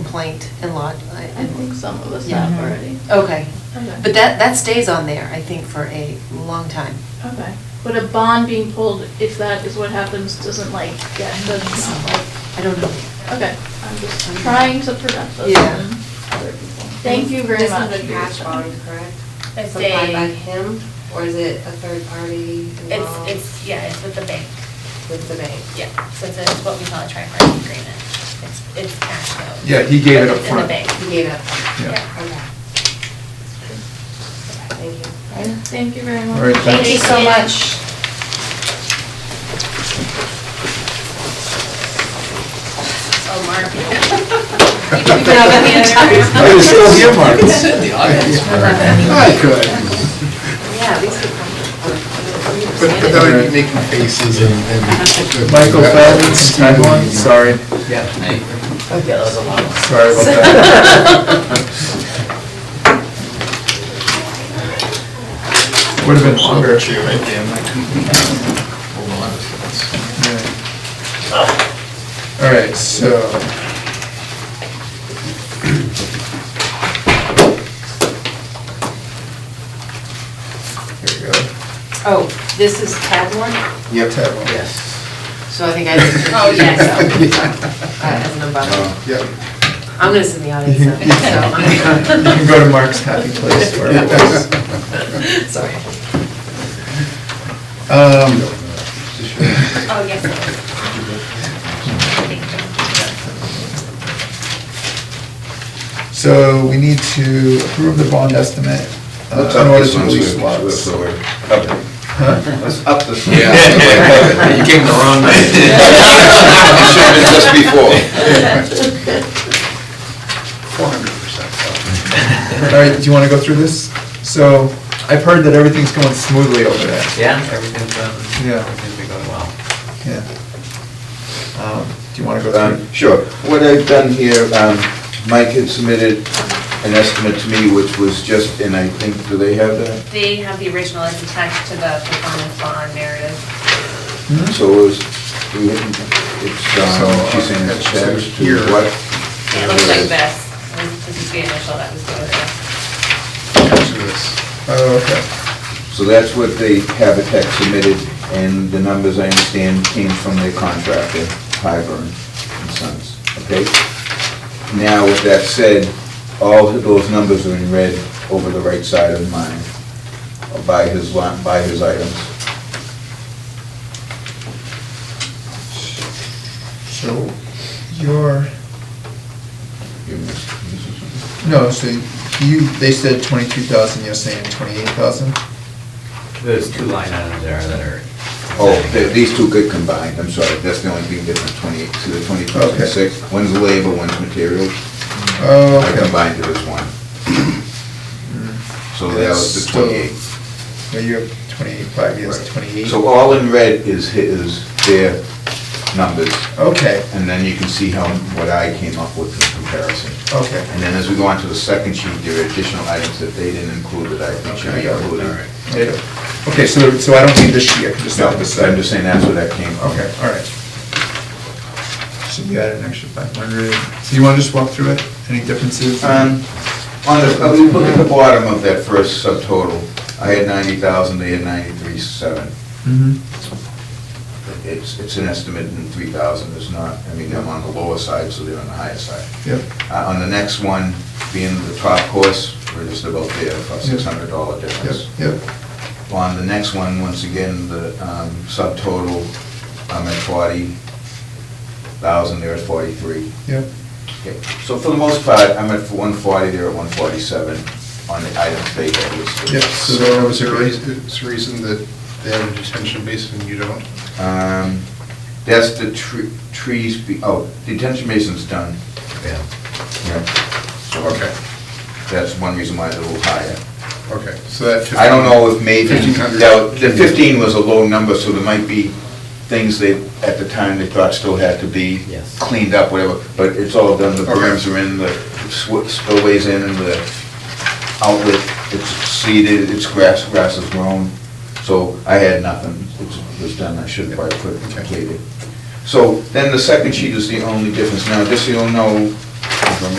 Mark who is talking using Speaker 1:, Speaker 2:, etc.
Speaker 1: complaint in lot. I-
Speaker 2: I think some of us
Speaker 1: Yeah.
Speaker 2: have already.
Speaker 1: Okay,
Speaker 2: Okay.
Speaker 1: but that, that stays on there, I think, for a long time.
Speaker 2: Okay, but a bond being pulled, if that is what happens, doesn't like, get, does not like,
Speaker 1: I don't know.
Speaker 2: okay, I'm just trying to prevent this
Speaker 1: Yeah.
Speaker 2: from other people. Thank you very much.
Speaker 3: This
Speaker 2: for
Speaker 3: is a
Speaker 2: your
Speaker 3: cash
Speaker 2: time.
Speaker 3: bond, correct?
Speaker 4: It's
Speaker 3: Supplied by
Speaker 4: a,
Speaker 3: him, or is it a third party
Speaker 4: it's,
Speaker 3: involved
Speaker 4: it's, yeah, it's with the bank,
Speaker 3: with the bank?
Speaker 4: yeah, so it's a- what we call a tri-party agreement. It's, it's cash though.
Speaker 5: Yeah, he gave it up
Speaker 4: It's In the
Speaker 5: front.
Speaker 4: bank.
Speaker 3: You gave up,
Speaker 5: Yeah.
Speaker 3: okay. Thank you.
Speaker 2: Thank you very much.
Speaker 5: All right,
Speaker 4: Thank you
Speaker 5: thanks.
Speaker 4: so much. Oh, Mark. You can be back in the other room.
Speaker 5: I was still here, Mark.
Speaker 6: the audience.
Speaker 5: I could.
Speaker 1: Yeah, these could come.
Speaker 6: But but then I'd be making faces and. and-
Speaker 5: Michael Feldman's time one, sorry,
Speaker 6: Yeah, that was a lot.
Speaker 5: sorry about that. Would have been longer.
Speaker 6: Longer chair right there, I'm like, hold on.
Speaker 5: Yeah. All right, so. Here we go.
Speaker 1: Oh, this is tab one?
Speaker 6: Yep.
Speaker 5: Yes.
Speaker 1: So I think I just.
Speaker 4: Oh, yes.
Speaker 1: I don't know about it.
Speaker 6: Yep.
Speaker 1: I'm gonna sit in the audience now, so
Speaker 5: Oh. You can go to Mark's happy place where it was.
Speaker 1: I'm, sorry.
Speaker 5: Um,
Speaker 4: Oh, yes. it is.
Speaker 5: So we need to approve the bond estimate uh, in order to release lots. Huh?
Speaker 7: That's up this one.
Speaker 6: Yeah. You gave him the wrong
Speaker 7: You should have been just before.
Speaker 6: Four hundred percent.
Speaker 5: All right, do you want to go through this? So I've heard that everything's going smoothly over there.
Speaker 8: Yeah, everything's, um,
Speaker 5: Yeah.
Speaker 8: everything's been going well.
Speaker 5: Yeah. Um, Do you want to go
Speaker 7: Um,
Speaker 5: through?
Speaker 7: Sure. What I've done here, um, Mike had submitted an estimate to me, which was just, and I think, do they have that?
Speaker 4: They have the original, it's attached to the performance bond narrative.
Speaker 5: Hmm?
Speaker 7: So it was, we hadn't- it's, um, she's saying it's attached
Speaker 6: Here.
Speaker 7: to what?
Speaker 4: It looks like this. This is the initial that was voted.
Speaker 5: Oh, okay.
Speaker 7: So that's what the Habitat submitted, and the numbers, I understand, came from their contractor, Hyburn and Sons, okay? Now, with that said, all of those numbers are in red over the right side of mine, by his lot, by his items.
Speaker 5: So your,
Speaker 7: You missed-
Speaker 5: no, so you, they said 22,000, you're saying 28,000?
Speaker 8: There's two line items there that are.
Speaker 7: Oh, th- these two could combine, I'm sorry, that's the only thing different, 28, to the 22,600. One's labor, one's materials.
Speaker 5: Oh,
Speaker 7: Mm-hmm. I
Speaker 5: okay.
Speaker 7: combined it as one. So that was the
Speaker 5: Still-
Speaker 7: 28.
Speaker 5: Well, you have 28, years,
Speaker 7: Right.
Speaker 5: 28.
Speaker 7: So all in red is his, their numbers,
Speaker 5: Okay,
Speaker 7: and then you can see how, what I came up with in comparison.
Speaker 5: okay.
Speaker 7: And then as we go on to the second sheet, there are additional items that they didn't include that I think should
Speaker 5: Okay,
Speaker 7: be
Speaker 5: all
Speaker 7: included.
Speaker 5: right. Okay, so, so I don't need this sheet, I can just
Speaker 7: No,
Speaker 5: have
Speaker 7: I'm
Speaker 5: this side?
Speaker 7: just saying that's where that came from.
Speaker 5: Okay, all right. So you add an extra 500. So you want to just walk through it? Any differences?
Speaker 7: Um, On the, uh, we look at the bottom of that first subtotal, I had 90,000, they had 93,700.
Speaker 5: Mhm.
Speaker 7: It's, it's an estimate, and 3,000 is not, I mean, I'm on the lower side, so they're on the higher side.
Speaker 5: Yep.
Speaker 7: Uh, On the next one, being the top course, we're just about there, about
Speaker 5: Yep.
Speaker 7: $600
Speaker 5: Yep,
Speaker 7: difference.
Speaker 5: yep.
Speaker 7: On the next one, once again, the um, subtotal, I'm at 40,000, they're at 43.
Speaker 5: Yep.
Speaker 7: Okay, So for the most part, I'm at 140, they're at 147 on the items they had listed.
Speaker 5: Yep, so there was a reason.
Speaker 6: It's a reason that they have a detention basin and you don't.
Speaker 7: Um, That's the tre- trees, be- oh, detention basin's done.
Speaker 6: Yeah.
Speaker 7: Okay.
Speaker 6: Okay,
Speaker 7: That's one reason why it's a little higher.
Speaker 6: okay, so that.
Speaker 7: I don't know if maybe,
Speaker 6: 1,500.
Speaker 7: now, the 15 was a low number, so there might be things that, at the time, they thought still had to be
Speaker 8: Yes.
Speaker 7: cleaned up, whatever, but it's all done, the
Speaker 6: Okay.
Speaker 7: berms are in, the sw- spillways in, and the outlet, it's seeded, it's grass, grass is grown, so I had nothing, It's- it was done, I should have probably put it
Speaker 6: Okay.
Speaker 7: completed. So then the second sheet is the only difference. Now, just so you'll know,